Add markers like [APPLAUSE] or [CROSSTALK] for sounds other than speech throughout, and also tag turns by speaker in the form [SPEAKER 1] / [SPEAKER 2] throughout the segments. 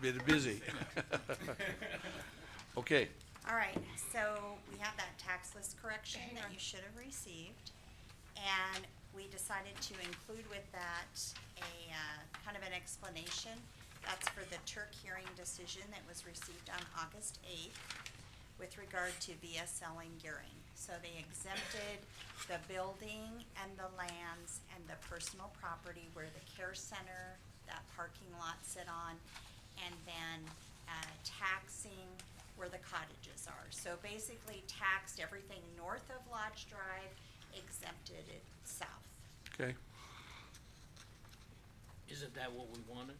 [SPEAKER 1] been [LAUGHS] busy. Okay,
[SPEAKER 2] All right, so we have that tax list correction that you should have received. And we decided to include with that a, uh, kind of an explanation. That's for the Turk hearing decision that was received on August eighth with regard to VSL and gearing. So they exempted the building and the lands and the personal property where the care center, that parking lot sit on, and then, uh, taxing where the cottages are. So basically taxed everything north of Lodge Drive, exempted it south.
[SPEAKER 1] okay.
[SPEAKER 3] Isn't that what we wanted?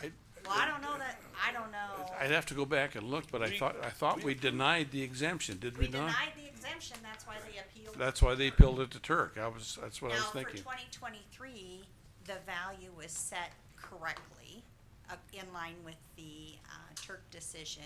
[SPEAKER 1] I,
[SPEAKER 2] Well, I don't know that, I don't
[SPEAKER 1] I'd
[SPEAKER 2] know.
[SPEAKER 1] have to go back and look, but I thought, I thought we denied the exemption, did
[SPEAKER 2] We
[SPEAKER 1] we not?
[SPEAKER 2] denied the exemption, that's why they appealed.
[SPEAKER 1] That's why they appealed it to Turk. I was, that's what I was
[SPEAKER 2] Now, for
[SPEAKER 1] thinking.
[SPEAKER 2] twenty twenty-three, the value was set correctly, uh, in line with the, uh, Turk decision,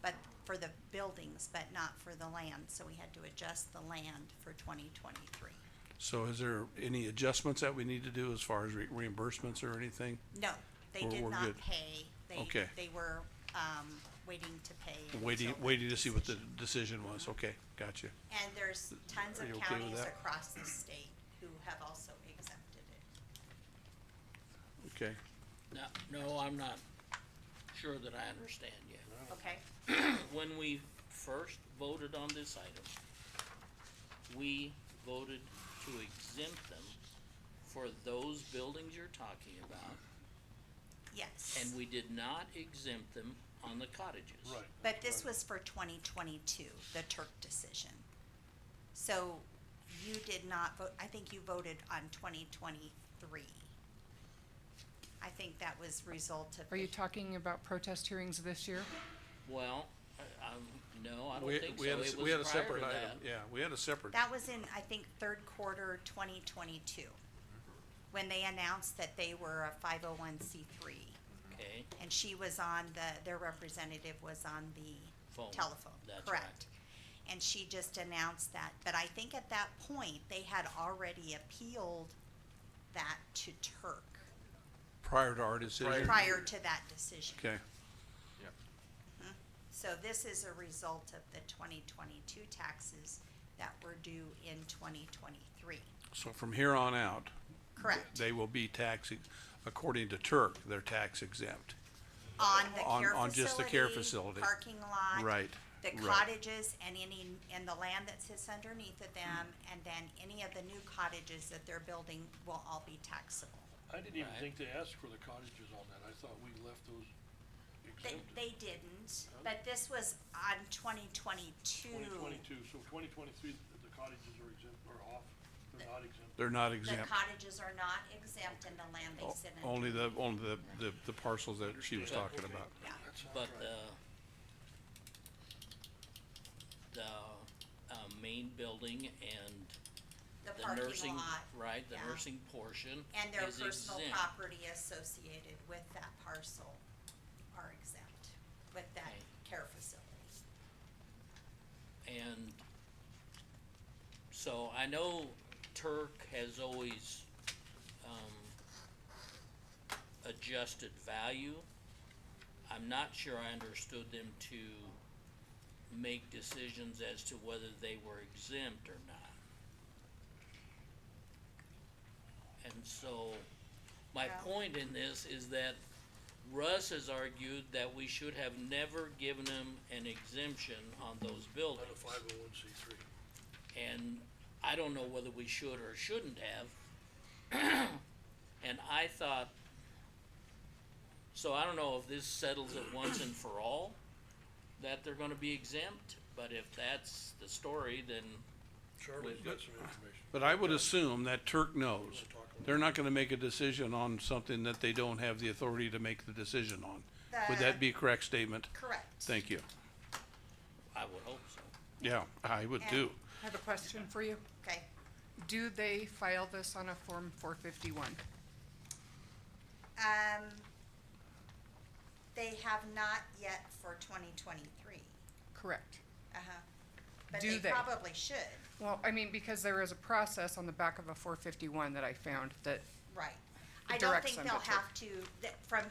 [SPEAKER 2] but for the buildings, but not for the land, so we had to adjust the land for twenty twenty-three.
[SPEAKER 1] So is there any adjustments that we need to do as far as re- reimbursements or anything?
[SPEAKER 2] No, they
[SPEAKER 1] We're-
[SPEAKER 2] did
[SPEAKER 1] we're
[SPEAKER 2] not
[SPEAKER 1] good.
[SPEAKER 2] pay, they,
[SPEAKER 1] Okay.
[SPEAKER 2] they were, um, waiting to pay.
[SPEAKER 1] Waiting,
[SPEAKER 2] until the
[SPEAKER 1] waiting to see what the
[SPEAKER 2] decision.
[SPEAKER 1] decision was. Okay, gotcha.
[SPEAKER 2] And there's tons
[SPEAKER 1] Are
[SPEAKER 2] of
[SPEAKER 1] you okay with
[SPEAKER 2] counties
[SPEAKER 1] that?
[SPEAKER 2] across the state who have also exempted it.
[SPEAKER 1] Okay.
[SPEAKER 3] No, no, I'm not sure that I understand yet.
[SPEAKER 2] Okay,
[SPEAKER 3] When we first voted on this item, we voted to exempt them for those buildings you're talking about,
[SPEAKER 2] yes.
[SPEAKER 3] and we did not exempt them on the cottages.
[SPEAKER 2] But this was for twenty twenty-two, the Turk decision. So you did not vote, I think you voted on twenty twenty-three. I think that was result of.
[SPEAKER 4] Are you
[SPEAKER 2] the-
[SPEAKER 4] talking about protest hearings this year?
[SPEAKER 3] Well, I- I'm, no, I
[SPEAKER 1] We,
[SPEAKER 3] don't think so.
[SPEAKER 1] we had, a s-
[SPEAKER 3] It
[SPEAKER 1] we had a
[SPEAKER 3] was prior to
[SPEAKER 1] separate item.
[SPEAKER 3] that.
[SPEAKER 1] Yeah, we had a separate,
[SPEAKER 2] That was in, I think, third quarter twenty twenty-two, when they announced that they were a five oh one C three.
[SPEAKER 3] Okay,
[SPEAKER 2] And she was on the, their representative was on the
[SPEAKER 3] Phone,
[SPEAKER 2] telephone,
[SPEAKER 3] that's right.
[SPEAKER 2] correct? And she just announced that, but I think at that point, they had already appealed that to Turk
[SPEAKER 1] prior to our decision.
[SPEAKER 2] prior to that decision.
[SPEAKER 1] Okay,
[SPEAKER 2] So this is a result of the twenty twenty-two taxes that were due in twenty twenty-three,
[SPEAKER 1] so from here on out,
[SPEAKER 2] correct?
[SPEAKER 1] they will be tax, ex- according to Turk, they're tax exempt.
[SPEAKER 2] On the
[SPEAKER 1] on-
[SPEAKER 2] care
[SPEAKER 1] on just the care facility.
[SPEAKER 2] Parking lot.
[SPEAKER 1] Right,
[SPEAKER 2] the
[SPEAKER 1] right.
[SPEAKER 2] cottages and any, and the land that sits underneath of them, and then any of the new cottages that they're building will all be taxable.
[SPEAKER 5] I didn't even
[SPEAKER 3] Right.
[SPEAKER 5] think they asked for the cottages on that, I thought we left those
[SPEAKER 2] They,
[SPEAKER 5] exempted.
[SPEAKER 2] they didn't, but this was on twenty
[SPEAKER 5] Twenty
[SPEAKER 2] twenty-two.
[SPEAKER 5] twenty-two, so twenty twenty-three, the cottages are exempt, are off, they're not exempt.
[SPEAKER 1] They're not
[SPEAKER 2] The
[SPEAKER 1] exempt.
[SPEAKER 2] cottages are not exempt and the land they
[SPEAKER 1] O-
[SPEAKER 2] sit in.
[SPEAKER 1] Only the, only the, the, the parcels that she was talking
[SPEAKER 5] Okay,
[SPEAKER 1] about.
[SPEAKER 2] Yeah.
[SPEAKER 5] that sounds
[SPEAKER 3] but,
[SPEAKER 5] right.
[SPEAKER 3] uh, the, uh, main building and
[SPEAKER 2] The
[SPEAKER 3] the
[SPEAKER 2] parking
[SPEAKER 3] nursing,
[SPEAKER 2] lot,
[SPEAKER 3] right, the
[SPEAKER 2] yeah.
[SPEAKER 3] nursing portion
[SPEAKER 2] and their
[SPEAKER 3] is
[SPEAKER 2] personal
[SPEAKER 3] exempt.
[SPEAKER 2] property associated with that parcel are exempt with that
[SPEAKER 3] Okay.
[SPEAKER 2] care facility.
[SPEAKER 3] And so I know Turk has always, um, adjusted value. I'm not sure I understood them to make decisions as to whether they were exempt or not. And so, my
[SPEAKER 2] Yeah.
[SPEAKER 3] point in this is that Russ has argued that we should have never given them an exemption on those buildings.
[SPEAKER 5] Not a five oh one C three.
[SPEAKER 3] And I don't know whether we should or shouldn't have. And I thought, so I don't know if this settles it once and for all, that they're gonna be exempt, but if that's the story, then,
[SPEAKER 5] Charlie's got some information.
[SPEAKER 1] But I would assume that Turk knows.
[SPEAKER 5] We'll talk about
[SPEAKER 1] They're not gonna make a decision on something that they don't have the authority to make the decision on. Would
[SPEAKER 2] The-
[SPEAKER 1] that be a correct statement?
[SPEAKER 2] Correct.
[SPEAKER 1] Thank you.
[SPEAKER 3] I would hope so.
[SPEAKER 1] Yeah, I would
[SPEAKER 2] And-
[SPEAKER 1] too.
[SPEAKER 4] I have a question for you.
[SPEAKER 2] Okay,
[SPEAKER 4] Do they file this on a Form four fifty-one?
[SPEAKER 2] um, they have not yet for twenty twenty-three,
[SPEAKER 4] Correct.
[SPEAKER 2] uh-huh. But
[SPEAKER 4] Do
[SPEAKER 2] they
[SPEAKER 4] they?
[SPEAKER 2] probably should,
[SPEAKER 4] Well, I mean, because there is a process on the back of a four fifty-one that I found that
[SPEAKER 2] right. I don't
[SPEAKER 4] Direct
[SPEAKER 2] think
[SPEAKER 4] them
[SPEAKER 2] they'll
[SPEAKER 4] to Turk.
[SPEAKER 2] have to, that, from